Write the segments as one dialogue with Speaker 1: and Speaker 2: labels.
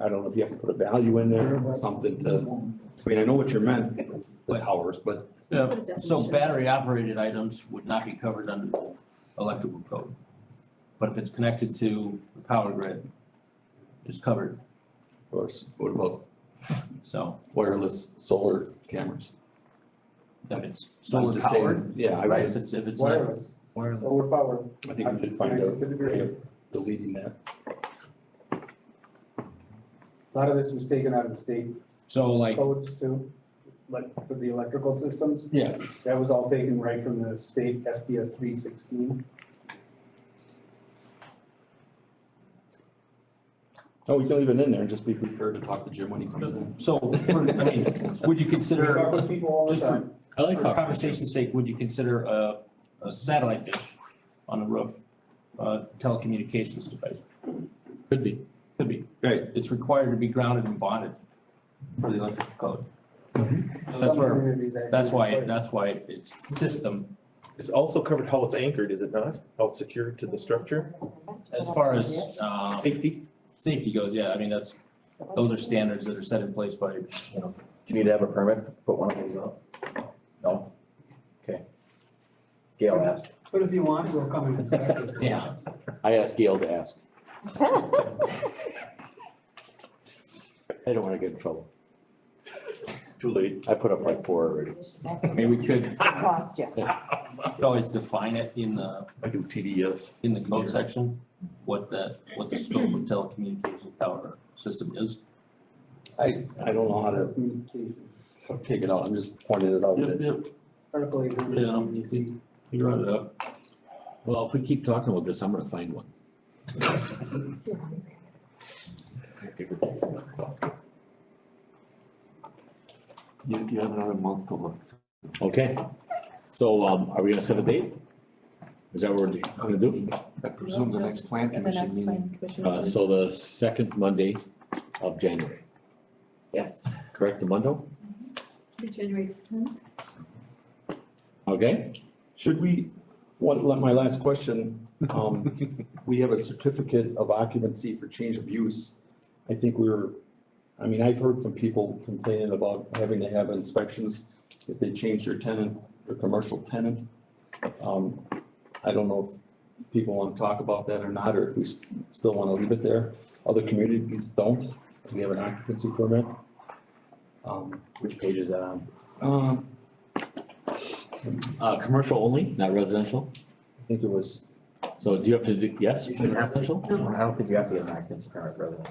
Speaker 1: I don't know if you have to put a value in there, something to, I mean, I know what you meant, the towers, but
Speaker 2: Yeah,
Speaker 3: Put a
Speaker 2: so
Speaker 3: definition.
Speaker 2: battery operated items would not be covered under the electrical code. But if it's connected to the power grid, it's covered,
Speaker 1: of course, what about
Speaker 2: so
Speaker 1: wireless solar cameras?
Speaker 2: if it's
Speaker 1: I'm
Speaker 2: solar
Speaker 1: just saying-
Speaker 2: powered,
Speaker 1: Yeah, I
Speaker 2: right, if
Speaker 1: was,
Speaker 2: it's, if it's not.
Speaker 4: Wireless, solar power.
Speaker 1: I think we should find out a way of deleting that.
Speaker 4: A lot of this was taken out of the state
Speaker 2: So like,
Speaker 4: codes too, like for the electrical systems.
Speaker 2: yeah,
Speaker 4: That was all taken right from the state SPS three sixteen.
Speaker 1: Oh, we can leave it in there and just be prepared to talk to Jim when he comes in.
Speaker 2: so, for- I mean, would you
Speaker 4: We
Speaker 2: consider,
Speaker 4: talk with people all the
Speaker 2: just for
Speaker 4: time.
Speaker 5: I like
Speaker 2: For
Speaker 5: talking.
Speaker 2: conversation's sake, would you consider a, a satellite dish on the roof, uh, telecommunications device?
Speaker 5: Could be.
Speaker 2: Could be.
Speaker 1: Right.
Speaker 2: It's required to be grounded and bonded for the electrical code. That's
Speaker 4: Some
Speaker 2: where,
Speaker 4: communities actually
Speaker 2: that's why,
Speaker 4: require it.
Speaker 2: that's why it's system,
Speaker 6: It's also covered how it's anchored, is it not? How it's secured to the structure,
Speaker 2: as far as, uh,
Speaker 6: safety?
Speaker 2: safety goes, yeah, I mean, that's, those are standards that are set in place by, you
Speaker 7: Do
Speaker 2: know,
Speaker 7: you need to have a permit to put one of those up? No? Okay. Gail asked.
Speaker 8: But if you want, we'll come and inspect it.
Speaker 2: yeah.
Speaker 5: I asked Gail to ask. I don't wanna get in trouble.
Speaker 6: Too late.
Speaker 5: I put up like four already.
Speaker 2: I mean, we could,
Speaker 3: Cost you.
Speaker 2: could always define it in the,
Speaker 6: I do TDS.
Speaker 2: in the code section, what the, what the scope of telecommunications tower system is.
Speaker 1: I, I don't know how to
Speaker 4: Communications.
Speaker 1: take it out, I'm just pointing it out.
Speaker 2: Yep,
Speaker 1: that-
Speaker 2: yep.
Speaker 4: Article eight hundred.
Speaker 2: Yeah, um, You brought it up.
Speaker 5: Well, if we keep talking about this, I'm gonna find one.
Speaker 1: You, you have another month to look.
Speaker 5: Okay. So, um, are we gonna set a date? Is that what we're gonna do?
Speaker 1: I presume the next plan
Speaker 3: The next plan commission.
Speaker 5: Uh, so the second Monday of January,
Speaker 3: Yes.
Speaker 5: correct, the Monday?
Speaker 3: January tenth.
Speaker 5: Okay?
Speaker 1: Should we, one, let my last question, um, we have a certificate of occupancy for change of use. I think we were, I mean, I've heard from people complaining about having to have inspections if they change their tenant, their commercial tenant. Um, I don't know if people wanna talk about that or not, or if we s- still wanna leave it there. Other communities don't, we have an occupancy permit. Um,
Speaker 5: Which page is that on?
Speaker 1: um,
Speaker 5: Uh, commercial only, not residential?
Speaker 1: I think it was
Speaker 5: So do you have to do, yes,
Speaker 7: You should have to.
Speaker 5: residential?
Speaker 7: I don't think you have to get an occupancy permit, brother.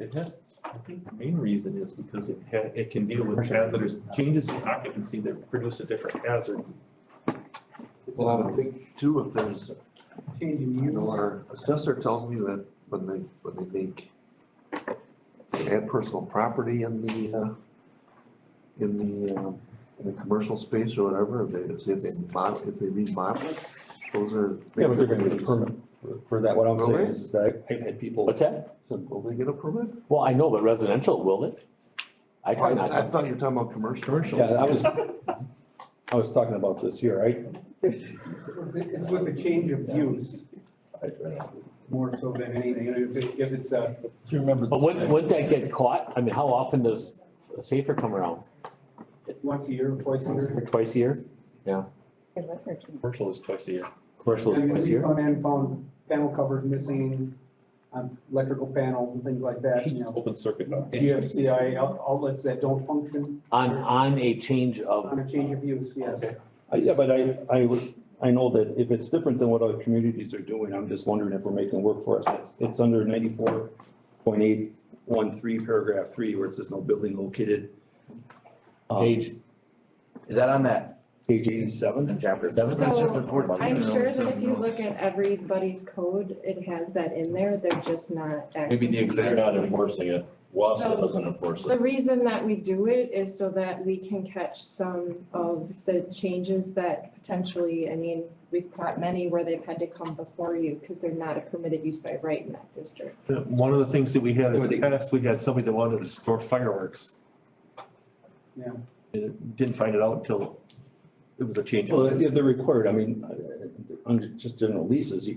Speaker 6: It has, I think the main reason is because it ha, it can deal with hazardous changes in occupancy that produce a different hazard.
Speaker 9: Well, I would think too, if there's,
Speaker 4: Changing
Speaker 9: you know,
Speaker 4: use.
Speaker 9: our assessor tells me that when they, when they make they add personal property in the, uh, in the, um, in the commercial space or whatever, if they, if they mod, if they remodel it, those are.
Speaker 1: Yeah, but they're gonna get a permit for- for that, what I'm saying
Speaker 9: Really?
Speaker 1: is, is that I've had people,
Speaker 5: What's that?
Speaker 9: So Will they get a permit?
Speaker 5: Well, I know, but residential, will it? I try not
Speaker 9: I
Speaker 5: to.
Speaker 9: thought you were talking about commercial.
Speaker 1: yeah, I was, I was talking about this here, right?
Speaker 4: It's with the change of use more so than anything. If it- uh, if it's a
Speaker 2: Do you remember?
Speaker 5: But
Speaker 2: this
Speaker 5: wouldn't,
Speaker 2: thing?
Speaker 5: wouldn't that get caught? I mean, how often does Safer come around?
Speaker 4: once a year, or twice a
Speaker 5: Once
Speaker 4: year.
Speaker 5: or Twice a year?
Speaker 6: Commercial is twice a year.
Speaker 5: Commercial is
Speaker 4: And
Speaker 5: twice a
Speaker 4: we
Speaker 5: year?
Speaker 4: found and found panel covers missing, um, electrical panels and things like that, you know.
Speaker 6: Open circuit.
Speaker 4: GFCI out- outlets that don't function
Speaker 5: On, on a change
Speaker 4: on
Speaker 5: of,
Speaker 4: a change of use, yes.
Speaker 1: I- Yeah, but I, I would, I know that if it's different than what other communities are doing, I'm just wondering if we're making work for us. It's, it's under ninety-four point eight one three, paragraph three, where it says no building located. um,
Speaker 5: Page.
Speaker 7: Is that on that?
Speaker 1: Page eighty-seven,
Speaker 7: Chapter.
Speaker 5: Seven?
Speaker 3: So I'm sure that if you look at everybody's code, it has that in there, they're just not acting.
Speaker 6: Maybe the exact.
Speaker 5: enforcing it.
Speaker 3: Wausau
Speaker 5: doesn't enforce
Speaker 3: The reason that we do it is so that we can catch some of the changes that potentially, I mean, we've caught many where they've had to come before you because they're not a permitted use by right in that district.
Speaker 6: The- One of the things that we had in the past, we had somebody that wanted to store fireworks.
Speaker 4: Yeah.
Speaker 6: And Didn't find it out until it was a change. of
Speaker 1: well, if they're required, I mean, uh, under just general leases, you